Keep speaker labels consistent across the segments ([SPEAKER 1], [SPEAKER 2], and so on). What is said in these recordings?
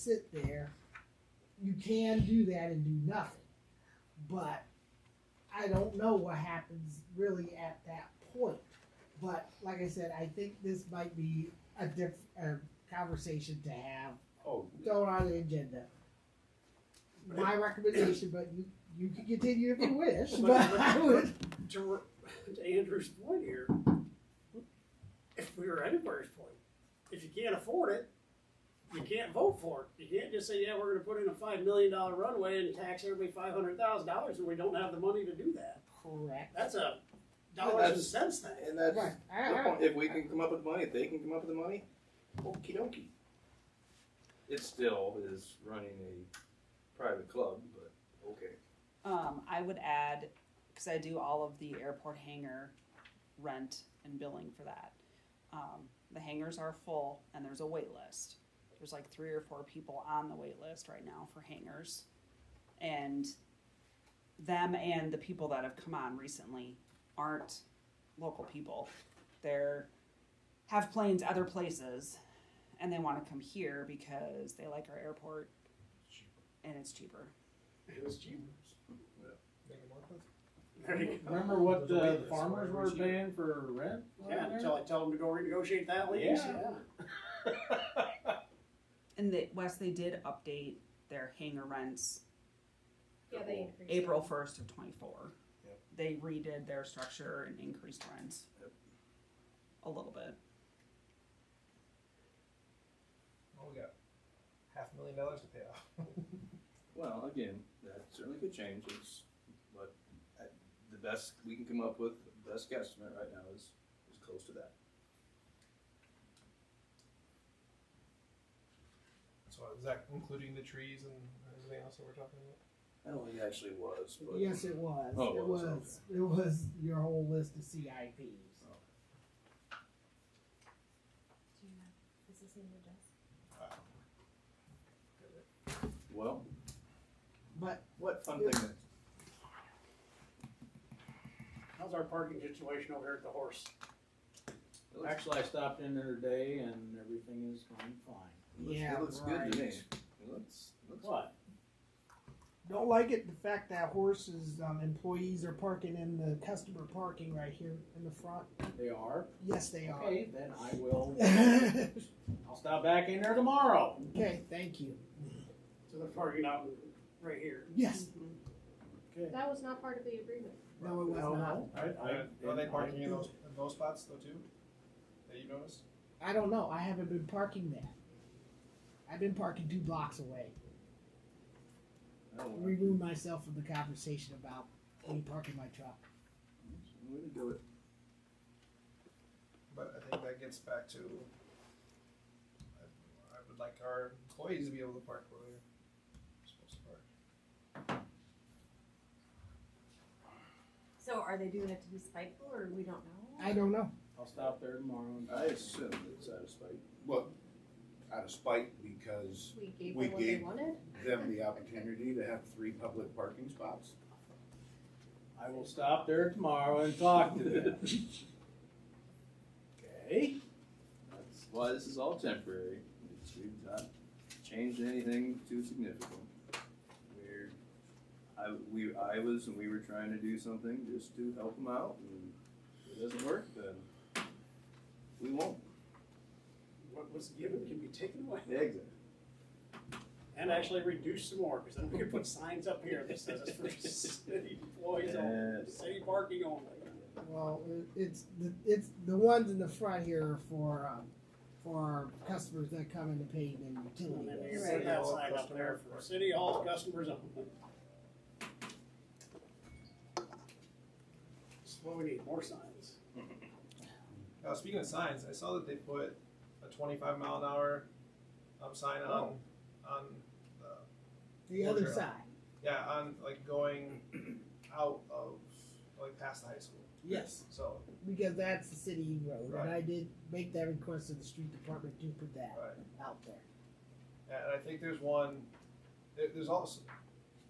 [SPEAKER 1] sit there. You can do that and do nothing. But I don't know what happens really at that point. But like I said, I think this might be a diff, a conversation to have
[SPEAKER 2] Oh,
[SPEAKER 1] thrown on the agenda. My recommendation, but you, you can continue if you wish, but I would,
[SPEAKER 2] to, to Andrew's point here, if we were anybody's point, if you can't afford it, you can't vote for it. You can't just say, yeah, we're gonna put in a five million dollar runway and tax everybody five hundred thousand dollars and we don't have the money to do that.
[SPEAKER 1] correct.
[SPEAKER 2] That's a
[SPEAKER 3] Yeah,
[SPEAKER 2] dollars
[SPEAKER 3] that's-
[SPEAKER 2] and cents thing.
[SPEAKER 3] And that's
[SPEAKER 1] Right, I-
[SPEAKER 3] the
[SPEAKER 1] I-
[SPEAKER 3] point. if we can come up with money, if they can come up with the money, okie dokie. It still is running a private club, but okay.
[SPEAKER 4] Um, I would add, because I do all of the airport hangar rent and billing for that. Um, the hangars are full and there's a wait list. There's like three or four people on the wait list right now for hangars. And them and the people that have come on recently aren't local people. They're have planes other places and they want to come here because they like our airport and it's cheaper.
[SPEAKER 2] It was cheap.
[SPEAKER 5] Remember what the farmers were paying for rent? on
[SPEAKER 2] Yeah,
[SPEAKER 5] there?
[SPEAKER 2] until I tell them to go renegotiate that lease,
[SPEAKER 5] Yeah.
[SPEAKER 2] yeah.
[SPEAKER 4] And the West, they did update their hangar rents
[SPEAKER 6] Yeah, they increased.
[SPEAKER 4] April first of twenty-four.
[SPEAKER 3] Yep.
[SPEAKER 4] They redid their structure and increased rents.
[SPEAKER 3] Yep.
[SPEAKER 4] A little bit.
[SPEAKER 7] Well, Oh, we got half a million dollars to pay off.
[SPEAKER 3] Well, again, that certainly could change, it's, but uh, the best we can come up with, the best guesstimate right now is, is close to that.
[SPEAKER 7] So is that including the trees and everything else that we're talking about?
[SPEAKER 3] I don't think it actually was, but.
[SPEAKER 1] Yes, it was.
[SPEAKER 3] Oh, it
[SPEAKER 1] It
[SPEAKER 3] was,
[SPEAKER 1] was, it was your whole list of CIPs.
[SPEAKER 6] Do you have, is this in your desk?
[SPEAKER 3] Well,
[SPEAKER 1] But
[SPEAKER 3] what fun thing that,
[SPEAKER 2] How's our parking situation over here at the horse?
[SPEAKER 3] it looks,
[SPEAKER 5] Actually, I stopped in there today and everything is going fine.
[SPEAKER 3] it looks-
[SPEAKER 1] Yeah,
[SPEAKER 3] it looks good to me,
[SPEAKER 1] right.
[SPEAKER 3] it looks, looks.
[SPEAKER 5] What?
[SPEAKER 1] don't like it, the fact that horses, um, employees are parking in the customer parking right here in the front.
[SPEAKER 5] They are?
[SPEAKER 1] Yes, they are.
[SPEAKER 5] Okay, then I will,
[SPEAKER 1] okay,
[SPEAKER 5] I'll stop back in there tomorrow.
[SPEAKER 1] thank you.
[SPEAKER 2] So they're parking out right here.
[SPEAKER 1] Yes.
[SPEAKER 5] Okay.
[SPEAKER 6] That was not part of the agreement.
[SPEAKER 1] No, it was
[SPEAKER 5] No,
[SPEAKER 1] not.
[SPEAKER 5] I- I-
[SPEAKER 7] Are they
[SPEAKER 5] I-
[SPEAKER 7] parking in those, in those spots though too? That you noticed?
[SPEAKER 1] I don't know. I haven't been parking there. I've been parking two blocks away.
[SPEAKER 3] I don't know.
[SPEAKER 1] Remove myself from the conversation about me parking my truck.
[SPEAKER 3] Way to do it.
[SPEAKER 7] But I think that gets back to, I, I would like our employees to be able to park where they're supposed to park.
[SPEAKER 6] So are they doing it to be spiteful or we don't know?
[SPEAKER 1] I don't know.
[SPEAKER 5] I'll stop there tomorrow. and-
[SPEAKER 3] I assume it's out of spite.
[SPEAKER 8] Well, out of spite because
[SPEAKER 6] We gave
[SPEAKER 8] We
[SPEAKER 6] them what they
[SPEAKER 8] gave-
[SPEAKER 6] wanted?
[SPEAKER 8] them the opportunity to have three public parking spots.
[SPEAKER 5] I will stop there tomorrow and talk to them. Okay?
[SPEAKER 3] That's why this is all temporary. It's, we've not changed anything too significant. We're, I, we, I was, and we were trying to do something just to help them out, and if it doesn't work, then we won't.
[SPEAKER 2] What was given can be taken away.
[SPEAKER 3] Exit.
[SPEAKER 2] And actually reduce some more, because then we can put signs up here that says it's for city employees only,
[SPEAKER 3] Yes.
[SPEAKER 2] city parking only.
[SPEAKER 1] Well, it- it's the, it's the ones in the front here are for um, for customers that come in to pay their
[SPEAKER 2] And
[SPEAKER 1] utility
[SPEAKER 2] then you
[SPEAKER 1] bills.
[SPEAKER 2] put that sign up there for city hall customers only. That's what we need, more signs.
[SPEAKER 7] Uh, speaking of signs, I saw that they put a twenty-five mile an hour, um, sign
[SPEAKER 1] Oh.
[SPEAKER 7] on, on, uh,
[SPEAKER 1] The other
[SPEAKER 7] Sure.
[SPEAKER 1] side.
[SPEAKER 7] Yeah, on like going out of like past the high school.
[SPEAKER 1] Yes,
[SPEAKER 7] So
[SPEAKER 1] because that's the city road,
[SPEAKER 7] Right.
[SPEAKER 1] and I did make that request to the street department to put that
[SPEAKER 7] right,
[SPEAKER 1] out there.
[SPEAKER 7] yeah, uh, and I think there's one. There, there's also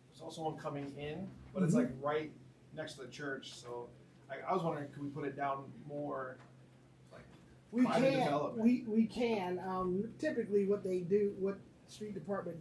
[SPEAKER 7] there's also one coming in, but it's like right next to the church. So I, I was wondering, could we put it down more?
[SPEAKER 1] We
[SPEAKER 7] Private
[SPEAKER 1] can,
[SPEAKER 7] development.
[SPEAKER 1] we, we can, um, typically what they do, what street department